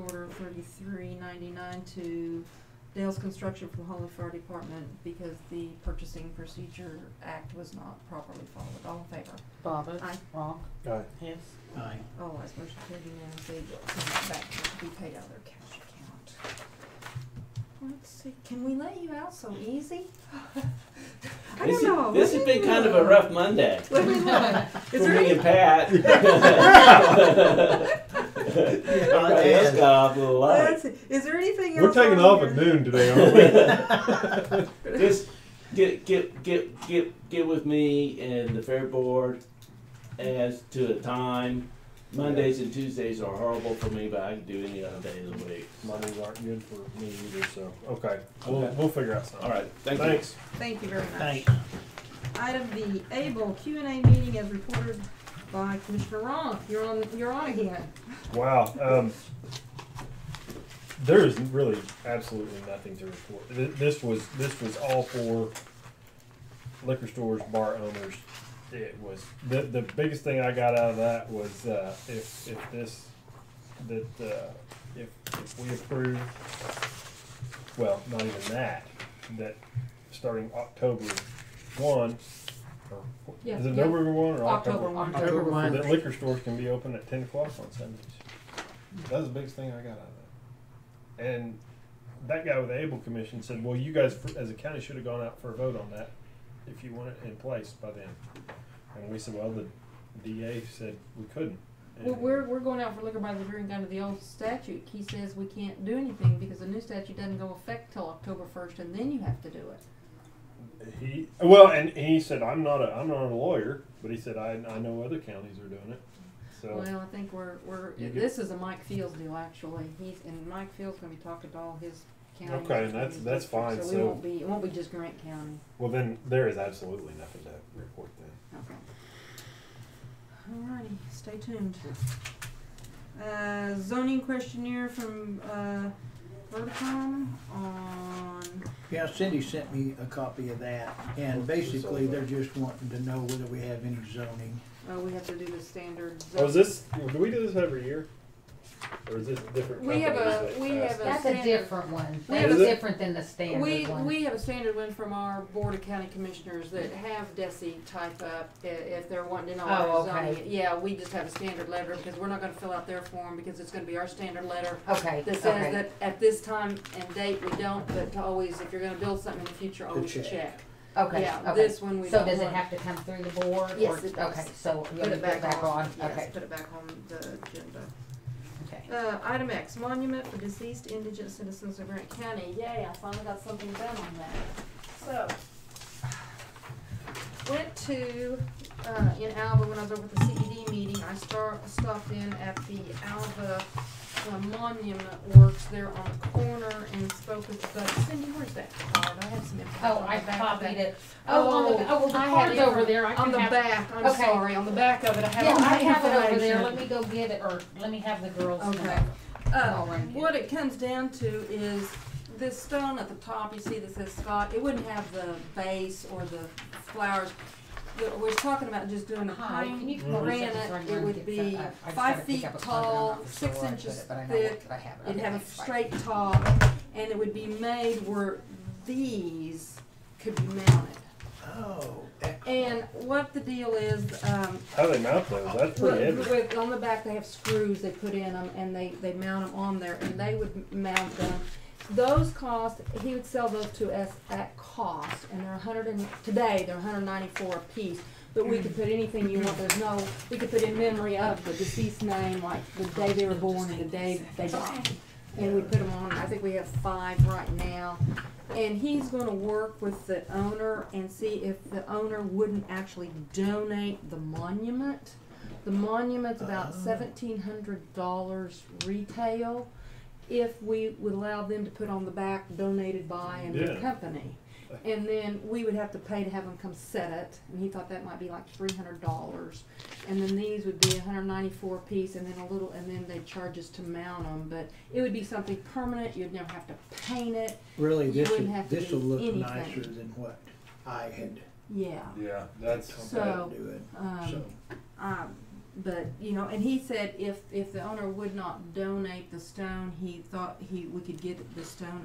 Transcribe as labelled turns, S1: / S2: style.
S1: thirty-three ninety-nine to Dale's Construction for the Holland Fire Department because the Purchasing Procedure Act was not properly followed. All in favor?
S2: Bobbit.
S1: Aye.
S2: Wrong.
S3: Aye.
S2: Hess.
S4: Aye.
S1: All eyes motion carried unanimously. Send it back to be paid out of their cash account. Let's see, can we let you out so easy? I don't
S4: This is-
S1: know.
S4: This has been kind of a rough Monday
S1: What do we want?
S4: for
S1: Is there
S4: me
S1: any?
S4: and Pat. Our desk off a
S1: Let's
S4: lot.
S1: see. Is there anything else?
S3: We're taking
S1: on
S3: off
S1: here?
S3: at noon today, aren't
S4: Just get, get, get, get, get with me and the fair board as to a time. Mondays and Tuesdays are horrible for me, but I can do any other day of the week.
S3: we? Mondays aren't good for me either, so, okay, we'll,
S4: Okay.
S3: we'll figure out something.
S4: All right, thank you.
S3: Thanks.
S1: Thank you very much.
S4: Thank-
S1: Item B, Able Q and A meeting as reported by Commissioner Ron. You're on, you're on again.
S3: Wow. Um, there is really absolutely nothing to report. Th- This was this was all for liquor stores, bar owners. It was the the biggest thing I got out of that was uh, if if this that uh, if if we approve, well, not even that that starting October one. Or,
S1: Yeah,
S3: is it
S1: yeah.
S3: November one or
S1: October one.
S2: October
S3: October,
S2: one.
S3: that liquor stores can be open at ten o'clock on Sundays. That was the biggest thing I got out of that. And that guy with the Able Commission said, well, you guys as a county should have gone out for a vote on that if you want it in place by then. And we said, well, the DA said we couldn't. And-
S1: Well, we're, we're going out for liquor by the drink under the old statute. He says we can't do anything because the new statute doesn't go effect till October first and then you have to do it.
S3: He, well, and he said, I'm not a, I'm not a lawyer, but he said, I, I know other counties are doing it. So,
S1: Well, I think we're, we're,
S3: You
S1: this is a Mike Fields deal actually. He's, and Mike Fields gonna be talking to all his county.
S3: Okay, and that's- that's fine,
S1: So we
S3: so-
S1: won't be, it won't be just Grant County.
S3: well, then there is absolutely nothing to report then.
S1: Okay. Alrighty, stay tuned. Uh, zoning questionnaire from, uh, Verticom on,
S5: Yeah, Cindy sent me a copy of that, and basically, they're just wanting to know whether we have any zoning.
S1: oh, we have to do the standard.
S3: Oh, is this? Do we do this every year, or is this different?
S1: We have
S3: companies
S1: a-
S3: that
S1: we
S3: pass
S1: have a-
S2: That's a
S1: standard.
S2: different one.
S1: We
S2: That's
S3: have a-
S2: different than the
S1: We,
S2: standard one.
S1: we have a standard one from our Board of County Commissioners that have DESI type up i- if they're wanting to know
S2: Oh,
S1: our
S2: okay.
S1: zoning. Yeah, we just have a standard letter because we're not gonna fill out their form because it's gonna be our standard letter
S2: Okay,
S1: that says
S2: okay,
S1: that at this time and date we don't, but to always, if you're gonna build something in the future, always
S5: check.
S1: check.
S2: okay,
S1: Yeah,
S2: okay.
S1: this one we
S2: So
S1: don't
S2: does it
S1: want.
S2: have to come through the board?
S1: Yes,
S2: or-
S1: it does.
S2: Okay, so you'll put it back on,
S1: Yes,
S2: okay,
S1: put it back on the agenda.
S2: okay.
S1: Uh, item X, monument for deceased indigent citizens of Grant County. Yay, I finally got something done on that. So, went to, uh, in Alva when I was over at the CED meeting, I star, stopped in at the Alva uh, Monument Works there on the corner and spoke with, the- Cindy, where's that card? I have some information
S2: Oh,
S1: on
S2: I
S1: the back of that.
S2: copied it. Oh, on the, oh, well, the
S1: I have
S2: card's
S1: it
S2: over there, I
S1: On
S2: can
S1: the
S2: have.
S1: back, I'm
S2: okay.
S1: sorry, on the back of it, I have
S2: Yeah,
S1: all
S2: I
S1: the
S2: have it over there, let
S1: information.
S2: me go get it, or let me have the girls come
S1: Okay.
S2: back.
S1: Uh,
S2: I'll run it.
S1: what it comes down to is this stone at the top, you see that says Scott, it wouldn't have the base or the flowers. We're, we're talking about just doing a
S2: Hi, can
S1: pine
S2: you come over and
S1: granite,
S2: set this right
S1: it
S2: here and
S1: would
S2: get
S1: be
S2: some- I- I just gotta
S1: five
S2: pick
S1: feet
S2: up a card. I'm
S1: tall,
S2: not for
S1: six
S2: sure where I put
S1: inches
S2: it, but I know
S1: thick.
S2: that I have it.
S1: It'd
S2: Okay,
S1: have a
S2: thanks, bye.
S1: straight top, and it would be made where these could be mounted.
S5: Oh, excellent.
S1: And what the deal is, um,
S3: How they mount those? That's pretty
S1: With,
S3: heavy.
S1: with, on the back, they have screws they put in them, and they, they mount them on there, and they would m- mount them. Those cost, he would sell those to us at cost, and they're a hundred and, today, they're hundred ninety-four a piece. But we could put anything you want, there's no, we could put in memory of the deceased name, like the day they were born and the day they died. And we put them on, I think we have five right now. And he's gonna work with the owner and see if the owner wouldn't actually donate the monument. The monument's about seventeen hundred dollars retail. If we would allow them to put on the back donated by and the
S3: Yeah.
S1: company. And then we would have to pay to have them come set it, and he thought that might be like three hundred dollars. And then these would be a hundred ninety-four a piece, and then a little, and then they'd charge us to mount them, but it would be something permanent, you'd never have to paint it,
S5: Really,
S1: you
S5: this,
S1: wouldn't
S5: will-
S1: have to
S5: this will
S1: do
S5: look
S1: anything.
S5: nicer than what I had
S1: yeah.
S3: Yeah, that's
S1: So-
S5: doing,
S1: Um,
S5: so.
S1: I but you know, and he said if if the owner would not donate the stone, he thought he we could get the stone